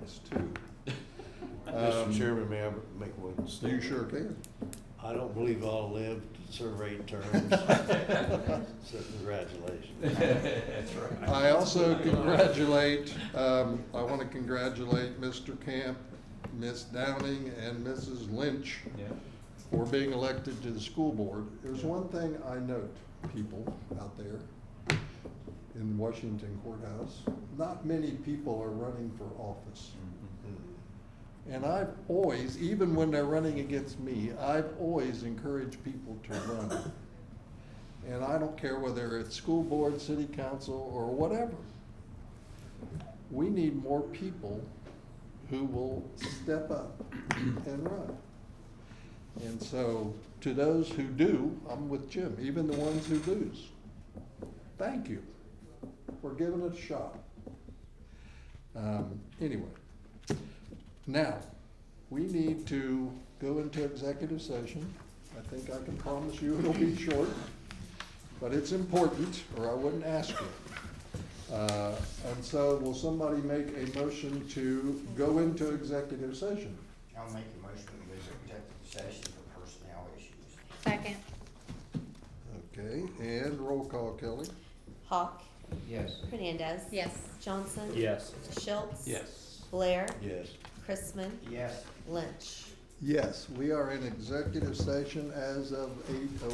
minutes too. Um, Mr. Chairman, may I make one You statement? sure can. I don't believe I'll live to serve eight terms, so congratulations. That's right. I also congratulate, um, I want to congratulate Mr. Camp, Ms. Downing, and Mrs. Lynch Yeah. for being elected to the school board. There's one thing I note, people out there in Washington courthouse, not many people are running for office. And I've always, even when they're running against me, I've always encouraged people to run. And I don't care whether it's school board, city council, or whatever. We need more people who will step up and run. And so, to those who do, I'm with Jim, even the ones who lose, thank you for giving it a shot. Um, anyway, now, we need to go into executive session. I think I can promise you it'll be short, but it's important, or I wouldn't ask you. Uh, and so, will somebody make a motion to go into executive session? I'll make a motion to go to executive session for personnel issues. Second. Okay, and roll call, Kelly. Hawk, Yes. Hernandez. Yes. Johnson. Yes. Schultz. Yes. Blair. Yes. Chrisman. Yes. Lynch. Yes, we are in executive session as of eight oh